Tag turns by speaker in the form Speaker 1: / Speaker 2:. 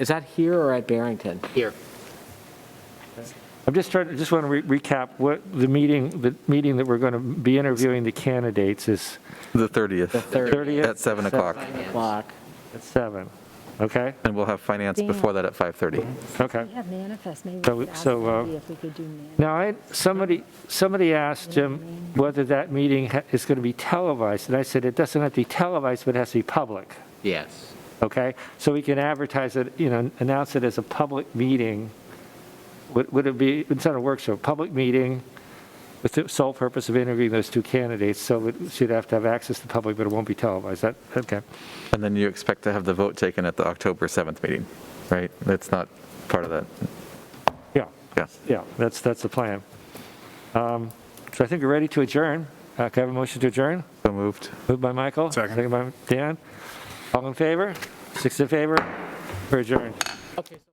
Speaker 1: Is that here or at Barrington?
Speaker 2: Here.
Speaker 3: I'm just trying, just want to recap what the meeting, the meeting that we're going to be interviewing the candidates is
Speaker 1: The
Speaker 4: The 30th
Speaker 1: 30th
Speaker 3: 30th?
Speaker 4: at 7 o'clock.
Speaker 1: block?
Speaker 3: At 7, okay?
Speaker 4: And we'll have finance before that at 5:30.
Speaker 3: Okay.
Speaker 5: We have manifest, maybe
Speaker 3: So-
Speaker 5: we could ask
Speaker 3: so, uh,
Speaker 5: Andy if we could do manifest.
Speaker 3: Now, I, somebody, somebody asked Jim whether that meeting ha- is going to be televised, and I said, it doesn't have to be televised, but it has to be public,
Speaker 2: Yes.
Speaker 3: okay? So we can advertise it, you know, announce it as a public meeting. Would would it be, it's not a workshop, public meeting with the sole purpose of interviewing those two candidates, so it should have to have access to the public, but it won't be televised, that, okay.
Speaker 4: And then you expect to have the vote taken at the October 7th meeting, right? That's not part of that.
Speaker 3: Yeah,
Speaker 4: Yeah.
Speaker 3: yeah, that's, that's the plan. Um, So I think we're ready to adjourn. Uh, Can I have a motion to adjourn?
Speaker 4: So moved.
Speaker 3: Moved by Michael.
Speaker 6: Second.
Speaker 3: by Dan. All in favor? Six in favor? We're adjourned.
Speaker 2: Okay.